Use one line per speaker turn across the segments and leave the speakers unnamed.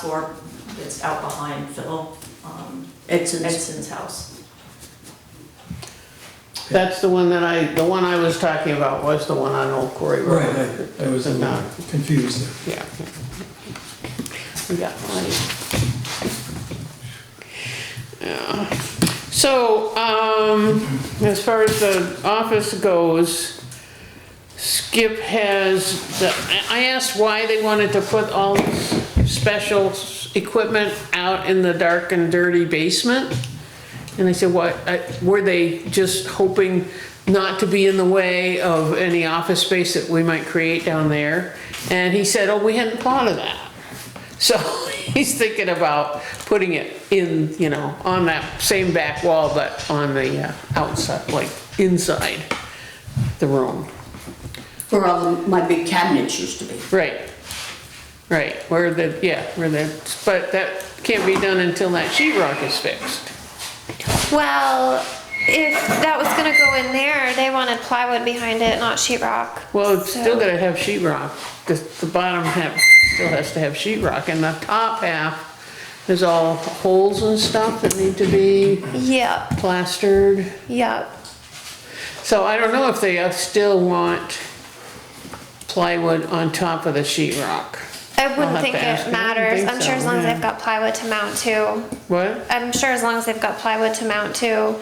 floor that's out behind Phil um,
Edson's.
Edson's house.
That's the one that I, the one I was talking about was the one on Old Quarry Road. Uh,
Right, I- I was a little confused there.
Yeah. We got plenty. Yeah. So, um, as far as the office goes, Skip has, the I I asked why they wanted to put all this special s- equipment out in the dark and dirty basement. And I said, what, I- were they just hoping not to be in the way of any office space that we might create down there? And he said, oh, we hadn't thought of that. So he's thinking about putting it in, you know, on that same back wall, but on the uh, outside, like inside the room.
Where all the- my big cabinets used to be.
Right, right, where the, yeah, where the, but that can't be done until that sheetrock is fixed.
Well, if that was gonna go in there, they wanted plywood behind it, not sheetrock.
Well, it's still
So-
gotta have sheetrock. The, the bottom half still has to have sheetrock, and the top half is all holes and stuff that need to be
Yep,
plastered.
yep.
So I don't know if they still want plywood on top of the sheetrock.
I
have
wouldn't think
to ask. I don't
it matters.
think
I'm sure as
so,
long as
yeah.
they've got plywood to mount to.
What?
I'm sure as long as they've got plywood to mount to.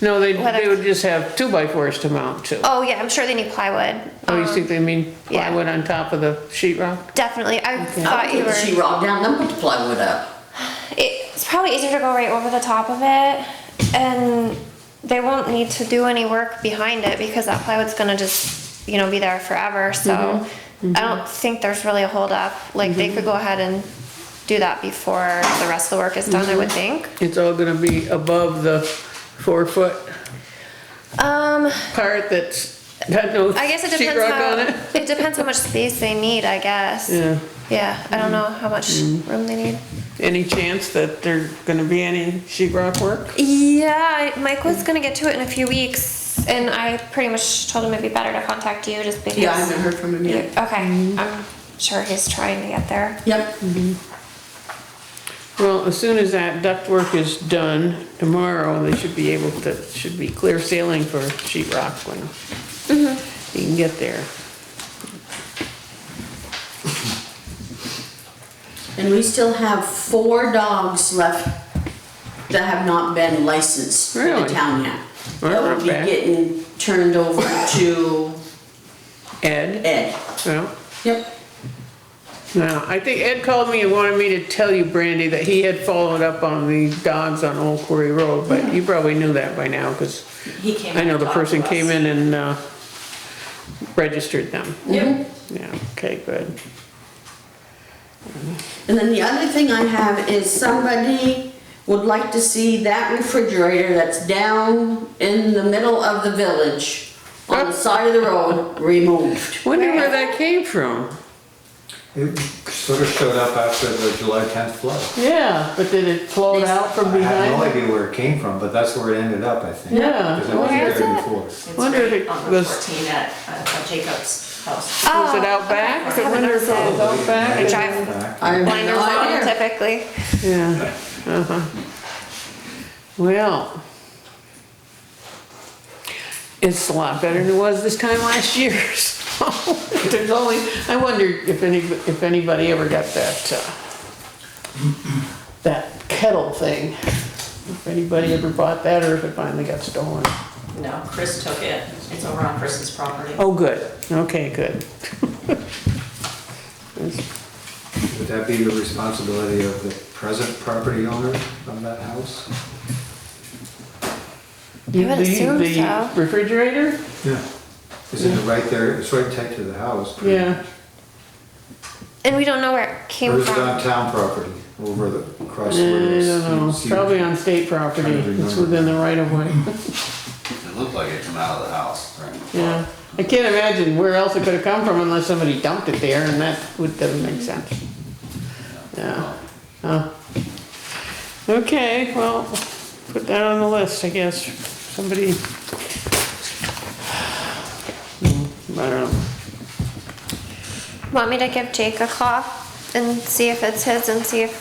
No, they, they
Whether-
would just have two by fours to mount to.
Oh yeah, I'm sure they need plywood.
Oh, you
Um,
think they mean
yeah.
plywood on top of the sheetrock?
Definitely. I
I
thought
would
you
put the
were.
sheetrock down, then put the plywood up.
It's probably easier to go right over the top of it, and they won't need to do any work behind it because that plywood's gonna just, you know, be there forever. So I don't think there's really a holdup. Like they could go ahead and do that before the rest of the work is done. I would think.
It's all gonna be above the four foot
Um.
part that's got no
I guess it
sheetrock
depends
on it.
how, it depends how much space they need, I guess.
Yeah.
Yeah, I don't know how much room they need.
Any chance that there gonna be any sheetrock work?
Yeah, I- Mike was gonna get to it in a few weeks, and I pretty much told him it'd be better to contact you just because.
Yeah, I haven't heard from him
you-
yet. Mm-hmm.
Okay, I'm sure he's trying to get there.
Yep.
Well, as soon as that duct work is done tomorrow, they should be able to, should be clear sailing for sheetrock when
Mm-hmm.
you can get there.
And we still have four dogs left that have not been licensed for the
Really?
town yet.
Well,
That will
not
be
bad.
getting turned over to
Ed?
Ed.
Well,
Yep.
no, I think Ed called me and wanted me to tell you, Brandy, that he had followed up on the dogs on Old Quarry Road, but you probably knew that by now, cause
He came.
I know
and
the
talked to
person
us.
came in and, uh, registered them.
Yep.
Mm-hmm.
Yeah, okay, good.
And then the other thing I have is somebody would like to see that refrigerator that's down in the middle of the village on the side of the road removed.
Wonder where that came from?
It sort of showed up after the July 10th flood.
Yeah, but did it float out from
I have no
behind?
idea where it came from, but that's where it ended up, I think.
Yeah.
Because it wasn't
Where is
there
it?
before.
It's
Wonder if
right
it
on the
was-
fourteen at uh, Jacob's house.
Was it
Oh,
out
okay.
back?
I
I
haven't
wonder if
noticed
it was
it.
out back?
Drive
Back.
I
blinders on typically.
Yeah, uh-huh. Well. It's a lot better than it was this time last year, so there's only, I wonder if any, if anybody ever got that, uh, that kettle thing. If anybody ever bought that or if it finally got stolen.
No, Chris took it. It's over on Chris's property.
Oh, good, okay, good.
Would that be the responsibility of the present property owner of that house?
You
would assume so.
The refrigerator?
Yeah. Is it right there, it's right tight to the house? pretty-
Yeah,
And we don't know where it
Or
came
is it on
from.
town property, over the, across
I
the
don't know, probably on state property,
Trying to
it's
remember.
within the right of way.
It looked like it came out of the house during the flood.
Yeah, I can't imagine where else it could have come from unless somebody dumped it there, and that would, doesn't make sense. Yeah, Huh. okay, well, put that on the list, I guess, somebody. Hmm, I don't know,
Want me to give Jake a call and see if it's his and see if